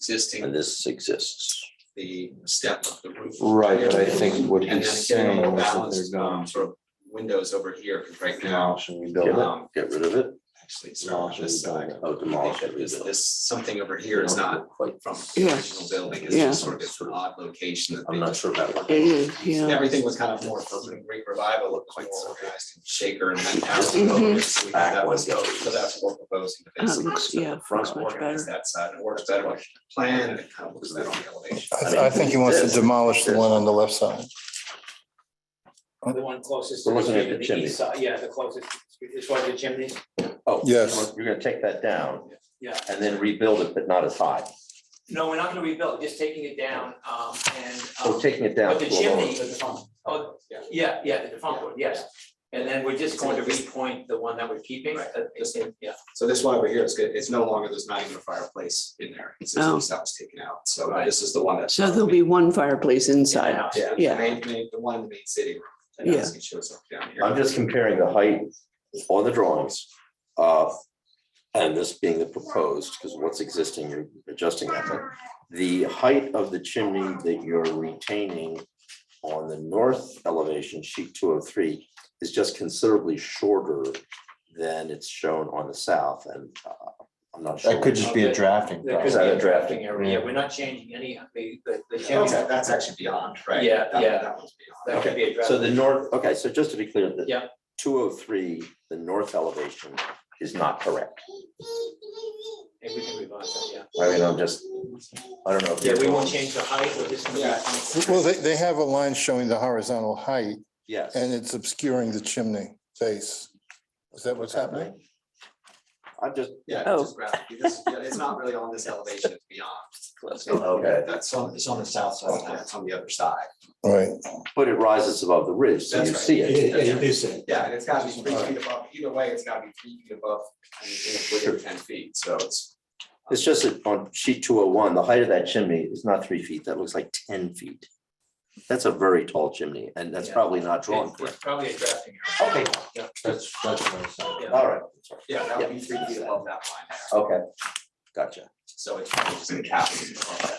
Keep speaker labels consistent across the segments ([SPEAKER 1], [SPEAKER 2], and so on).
[SPEAKER 1] existing,
[SPEAKER 2] and this exists.
[SPEAKER 1] the step of the roof.
[SPEAKER 3] Right, but I think what
[SPEAKER 1] And
[SPEAKER 3] he's
[SPEAKER 1] then again,
[SPEAKER 3] saying
[SPEAKER 1] a
[SPEAKER 3] is
[SPEAKER 1] balanced
[SPEAKER 3] that they're
[SPEAKER 1] um,
[SPEAKER 3] going.
[SPEAKER 1] sort of windows over here, because right now, um,
[SPEAKER 3] Demolish and
[SPEAKER 2] Get
[SPEAKER 3] rebuild it.
[SPEAKER 2] it, get rid of it,
[SPEAKER 1] actually, it's not on this side. I
[SPEAKER 2] oh,
[SPEAKER 1] think
[SPEAKER 2] demolish
[SPEAKER 1] that
[SPEAKER 2] it,
[SPEAKER 1] This,
[SPEAKER 2] rebuild.
[SPEAKER 1] this, something over here is not
[SPEAKER 2] Quite,
[SPEAKER 1] from the
[SPEAKER 4] Yeah.
[SPEAKER 1] original building, it's
[SPEAKER 4] Yeah.
[SPEAKER 1] just sort of this odd location that they.
[SPEAKER 2] I'm not sure about that.
[SPEAKER 4] It is, yeah.
[SPEAKER 1] Everything was kind of more, from Greek revival looked quite more organized and shaker and then now it's
[SPEAKER 4] Mhm.
[SPEAKER 1] over, so we have
[SPEAKER 2] back
[SPEAKER 1] that
[SPEAKER 2] one
[SPEAKER 1] was,
[SPEAKER 2] goes.
[SPEAKER 1] so that's what we're proposing. to
[SPEAKER 4] Oh, it
[SPEAKER 1] basically
[SPEAKER 4] looks,
[SPEAKER 1] set the
[SPEAKER 4] yeah,
[SPEAKER 1] front
[SPEAKER 4] looks much
[SPEAKER 1] organized
[SPEAKER 4] better.
[SPEAKER 1] That side, it works better with the plan, and it kind of looks better on the elevation.
[SPEAKER 5] I I think he wants to demolish the one on the left side.
[SPEAKER 6] The one closest.
[SPEAKER 2] The
[SPEAKER 6] to
[SPEAKER 2] ones that have the
[SPEAKER 6] street,
[SPEAKER 2] chimney.
[SPEAKER 6] east side, Yeah, the closest, as far as the chimney,
[SPEAKER 2] Oh,
[SPEAKER 5] Yes.
[SPEAKER 2] You're gonna take that down
[SPEAKER 6] yeah.
[SPEAKER 2] and then rebuild it, but not as high,
[SPEAKER 6] No, we're not gonna rebuild, just taking it down, um, and. um,
[SPEAKER 2] so taking Oh, it down.
[SPEAKER 6] But the
[SPEAKER 2] to a lower-
[SPEAKER 6] chimney, oh, yeah, yeah, the defunct one, yes. And then we're just going to repoint the one that we're keeping,
[SPEAKER 1] Right.
[SPEAKER 6] uh, it's in- yeah.
[SPEAKER 1] So this one over here is good, it's no longer, there's not even a fireplace in there, it's just
[SPEAKER 4] Oh.
[SPEAKER 1] this house taken out, so this is the one that's.
[SPEAKER 4] So there'll be one fireplace
[SPEAKER 6] in the
[SPEAKER 4] inside.
[SPEAKER 6] house.
[SPEAKER 1] Yeah, the
[SPEAKER 4] Yeah.
[SPEAKER 1] main, main, the one in the main city room, that
[SPEAKER 4] Yeah.
[SPEAKER 1] obviously shows up down here.
[SPEAKER 2] I'm just comparing the height on the drawings, uh, and this being the proposed, because what's existing, you're adjusting that. but The height of the chimney that you're retaining on the north elevation, sheet two oh three, is just considerably shorter than it's shown on the south, and uh, I'm not sure.
[SPEAKER 5] That could just be a drafting.
[SPEAKER 6] There
[SPEAKER 2] Is
[SPEAKER 6] could
[SPEAKER 2] that
[SPEAKER 6] be
[SPEAKER 2] a
[SPEAKER 6] a
[SPEAKER 2] drafting
[SPEAKER 6] drafting area, yeah, we're not changing any, of the, the the
[SPEAKER 1] Yeah,
[SPEAKER 6] chimney,
[SPEAKER 1] That's that's actually beyond, right?
[SPEAKER 6] Yeah,
[SPEAKER 1] That-
[SPEAKER 6] yeah.
[SPEAKER 1] That one's beyond.
[SPEAKER 6] that could be a
[SPEAKER 2] So
[SPEAKER 6] drafting.
[SPEAKER 2] the north, okay, so just to be clear, the
[SPEAKER 6] Yeah.
[SPEAKER 2] two oh three, the north elevation is not correct.
[SPEAKER 6] And we can revise that, yeah.
[SPEAKER 2] I mean, I'm just, I don't know. if
[SPEAKER 6] Yeah, we
[SPEAKER 2] you're-
[SPEAKER 6] won't change the height, we're just gonna
[SPEAKER 1] Yeah.
[SPEAKER 6] repoint.
[SPEAKER 5] Well, they, they have a line showing the horizontal height
[SPEAKER 2] Yes.
[SPEAKER 5] and it's obscuring the chimney face. Is that what's happening?
[SPEAKER 2] I'm Uh, just,
[SPEAKER 1] Yeah,
[SPEAKER 4] Oh.
[SPEAKER 1] it's just graphically, this, yeah, it's not really on this elevation, it's beyond. So,
[SPEAKER 2] Okay.
[SPEAKER 1] That's on, it's on the south side, that's on the other side.
[SPEAKER 5] Right.
[SPEAKER 2] but it rises above the ridge, so you
[SPEAKER 1] That's right.
[SPEAKER 2] see
[SPEAKER 1] It
[SPEAKER 2] it.
[SPEAKER 1] is- it Yeah, and it's gotta be three feet above, either way, it's gotta be three feet above, I mean, it's within ten feet, so it's.
[SPEAKER 2] It's just that on sheet two oh one, the height of that chimney is not three feet, that looks like ten feet. That's a very tall chimney, and that's
[SPEAKER 6] Yeah.
[SPEAKER 2] probably not drawn
[SPEAKER 6] It's-
[SPEAKER 2] correct.
[SPEAKER 6] It's probably a drafting
[SPEAKER 2] Okay.
[SPEAKER 6] Yeah.
[SPEAKER 2] That's, that's what I'm saying.
[SPEAKER 6] Yeah.
[SPEAKER 2] All right,
[SPEAKER 1] Yeah, that would be three feet above that line there,
[SPEAKER 2] okay, gotcha.
[SPEAKER 1] so it's probably just gonna cap it above that.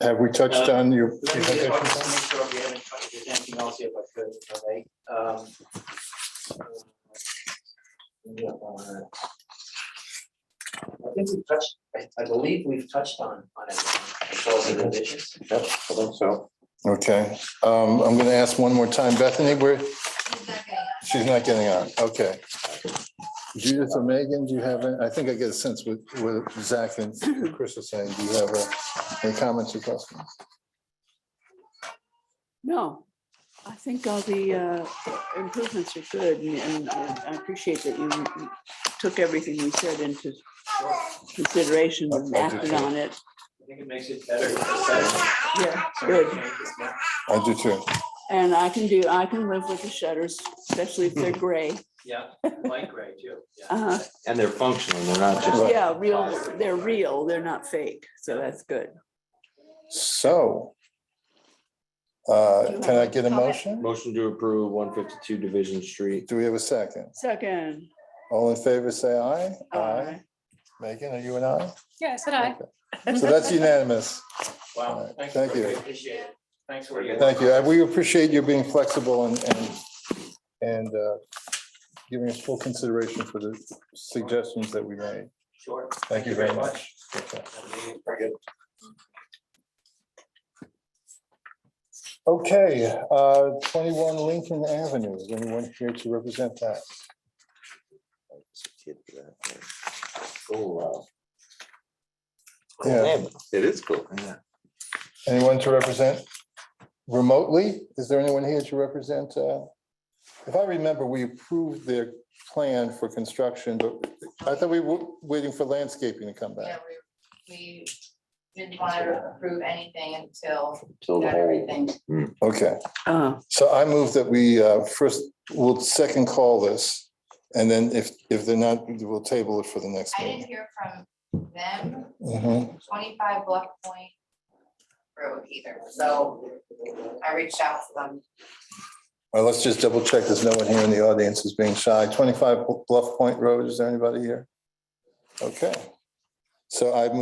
[SPEAKER 5] Have we touched on your?
[SPEAKER 6] Uh, Let me just want to make sure we haven't touched on anything else here, but could, if I may. Um, yeah, uh, I think we've touched, I, I believe we've touched on, on everything, as well as the revisions.
[SPEAKER 2] Yep, I think so.
[SPEAKER 5] Okay, um, I'm gonna ask one more time. Bethany, where, she's not getting on. Okay. Judith or Megan, do you have, a- I think I get a sense with, with Zach and Chris are saying, do you have a- any comments or questions?
[SPEAKER 4] No, I think all the uh, improvements are good and- and and I appreciate that you took everything we said into consideration and acted on it.
[SPEAKER 6] I think it makes it better. it's better.
[SPEAKER 4] Yeah,
[SPEAKER 6] Some of the
[SPEAKER 4] good.
[SPEAKER 6] changes, yeah.
[SPEAKER 5] I do too.
[SPEAKER 4] And I can do, I can live with the shutters, especially if
[SPEAKER 5] Hmm.
[SPEAKER 4] they're gray.
[SPEAKER 6] Yeah, light gray too, yeah.
[SPEAKER 4] Uh-huh.
[SPEAKER 3] And they're functional, they're not just.
[SPEAKER 4] Yeah, real, they're real, they're not fake, so that's good.
[SPEAKER 5] So. Uh, can I get a motion?
[SPEAKER 3] Motion to approve one fifty-two Division Street.
[SPEAKER 5] Do we have a second?
[SPEAKER 4] Second.
[SPEAKER 5] All in favor, say aye.
[SPEAKER 4] uh,
[SPEAKER 5] Megan, are you an aye?
[SPEAKER 7] Yeah, said I.
[SPEAKER 5] So that's unanimous.
[SPEAKER 6] Wow,
[SPEAKER 5] Alright,
[SPEAKER 6] thank
[SPEAKER 5] thank
[SPEAKER 6] you,
[SPEAKER 5] you.
[SPEAKER 6] appreciate it. Thanks for your.
[SPEAKER 5] Thank you. Uh, We appreciate you being flexible and, and, and uh, giving us full consideration for the suggestions that we made.
[SPEAKER 6] Sure.
[SPEAKER 5] Thank you very much.
[SPEAKER 6] Have a good evening.
[SPEAKER 5] Okay, uh, twenty-one Lincoln Avenue. Is anyone here to represent that?
[SPEAKER 2] Oh, wow.
[SPEAKER 5] Yeah.
[SPEAKER 2] It is cool.
[SPEAKER 5] Anyone to represent remotely? Is there anyone here to represent? uh, If I remember, we approved their plan for construction, but I thought we were waiting for landscaping to come
[SPEAKER 8] Yeah,
[SPEAKER 5] back.
[SPEAKER 8] we, we didn't want to approve anything until
[SPEAKER 2] Till the
[SPEAKER 8] got
[SPEAKER 2] whole,
[SPEAKER 8] everything.
[SPEAKER 5] Okay,
[SPEAKER 4] uh,
[SPEAKER 5] so I move that we uh, first, we'll second call this. And then if, if they're not, we'll table it for the next
[SPEAKER 8] I didn't
[SPEAKER 5] meeting.
[SPEAKER 8] hear from them,
[SPEAKER 5] Mhm.
[SPEAKER 8] twenty-five Bluff Point Road either, so I reached out to them.
[SPEAKER 5] Well, let's just double check. There's no one here in the audience who's being shy. Twenty-five Bluff Point Road, is there anybody here? Okay. So I